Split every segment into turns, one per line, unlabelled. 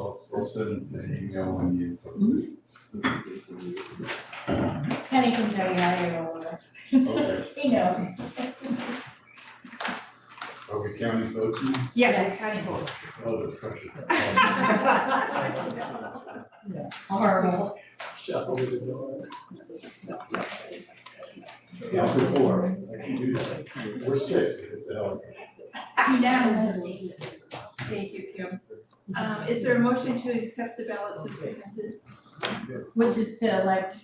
I'll send an email on you.
Penny can tell you how to get over this.
Okay.
He knows.
Are we county folks? now?
Yes.
Oh, that's pressure.
Horrible.
Shuffle to the door.
Yeah, before, I can do that. We're six, if it's out.
Unanimous.
Thank you, Kim. Um, is there a motion to accept the ballots as presented?
Which is to elect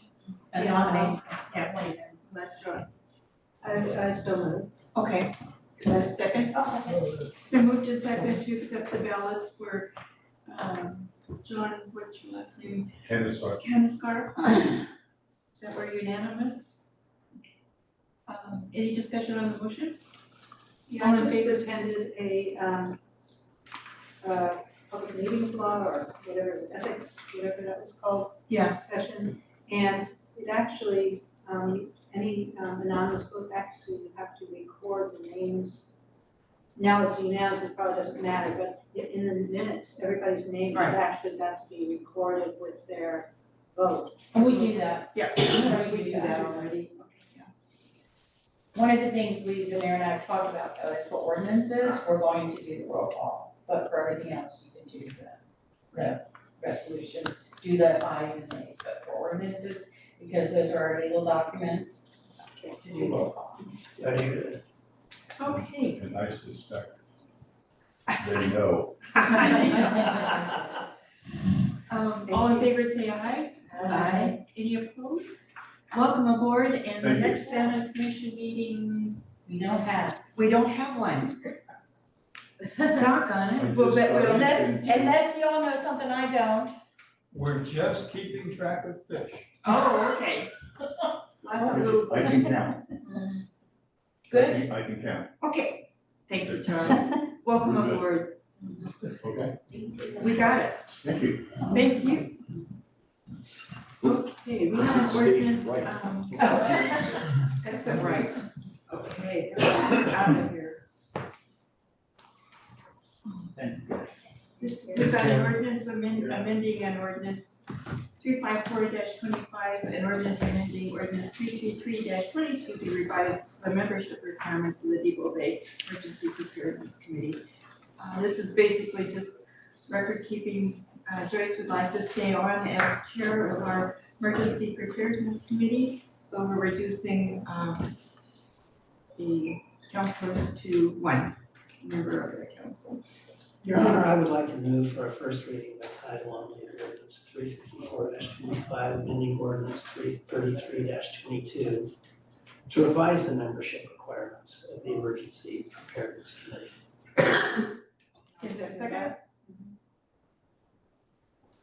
a nominee. Yeah, wait.
Not sure.
I, I still know.
Okay. Is that a second? Oh, It's been moved to second to accept the ballots for, um, John, what's your last name?
Tennis, I
Canisker? That were unanimous? Um, any discussion on the motion?
Yeah, I just attended a, um, uh, public meetings law or whatever, ethics, whatever that was called.
Yeah.
Session, and it actually, um, any um, anonymous book, actually, you have to record the names. Now it's unanimous, it probably doesn't matter, but i- in the minutes, everybody's name
Right.
is actually got to be recorded with their vote.
And we do that.
Yeah.
We do that
already.
One of the things we, the mayor and I have talked about though, is for ordinances, we're going to do the roll call, but for everything else, you can do the, the resolution, do the ayes and nays, but for ordinances, because those are our legal documents, to do roll call.
Are you,
Okay.
and I suspect they know.
Um, all in favor, say aye.
Aye.
Any opposed? Welcome aboard, and the
Thank you.
next Senate Commission meeting,
We don't have,
we don't have one. Doggone it. Well, but we'll-
unless, unless y'all know something I don't.
We're just keeping track of fish.
Oh, okay. Lots of little.
I can count. I
Good?
can- I can count,
Okay, thank you, John. Welcome
We're good.
aboard.
okay,
We got it.
thank you.
Thank you. Okay, we have an ordinance, um,
Oh.
that's all right. Okay, out of here.
thank you.
This is an ordinance amend- amending an ordinance three five four twenty-five, an ordinance amending ordinance three three three twenty-two to revise the membership requirements of the Depot Bay Emergency Preparedness Committee. Uh, this is basically just record keeping, uh, Joyce would like to stay on as chair of our emergency preparedness committee. So we're reducing, um, the counselors to one member of the council.
Your Honor, I would like to move for a first reading by title only, of ordinance three fifty-four twenty-five, amending ordinance three thirty-three twenty-two to revise the membership requirements of the Emergency Preparedness Committee.
Is there a second?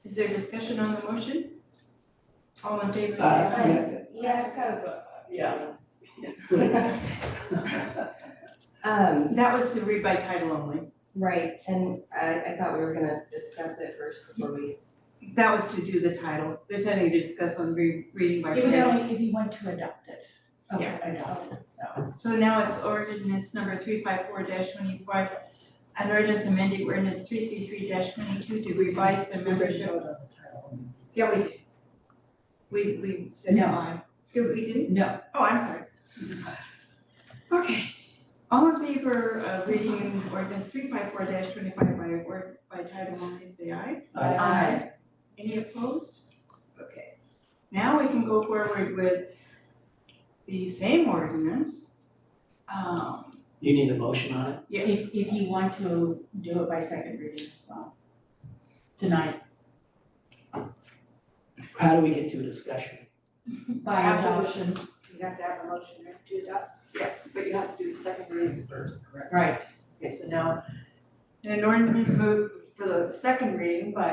Is there discussion on the motion? All in favor, say
Uh,
aye.
Yeah, I've got a,
uh, Yeah, please.
um,
That was to read by title only.
right, and I, I thought we were gonna discuss it first before we,
That was to do the title. There's nothing to discuss on re- reading by
It would
title.
only if you want to adopt it. Oh,
Okay.
Adopt it, so.
So now it's ordinance number three five four twenty-five. An ordinance amending ordinance three three three twenty-two to revise the membership.
Vote on the title.
Yeah, we did. We, we said
No.
aye. Did we didn't?
No,
Oh, I'm sorry. Okay, all in favor of reading ordinance three five four twenty-five by word, by title only, say aye.
Uh,
Aye.
Aye.
Any opposed? Okay, now we can go forward with the same ordinance. Um,
You need a motion on it?
yes,
if, if you want to do it by second reading as well. Tonight,
How do we get to a discussion?
by adoption,
You have to have a motion right, to adopt.
but you have to do the second reading first.
right,
okay, so now
An ordinance,
move for the second reading by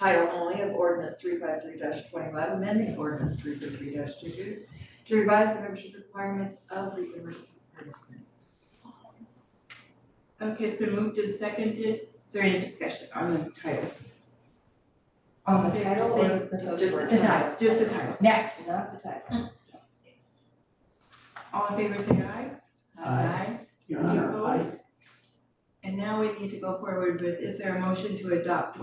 title only of ordinance three five three twenty-five, amending ordinance three four three two-two to revise the membership requirements of the Emergency Preparedness Committee.
okay, it's been moved and seconded, is there any discussion on the title?
On the
title or
the
Just the
ordinance?
title, just the title,
next.
Not the title.
all in favor, say aye.
Aye. Your Honor, I
And now we need to go forward with, is there a motion to adopt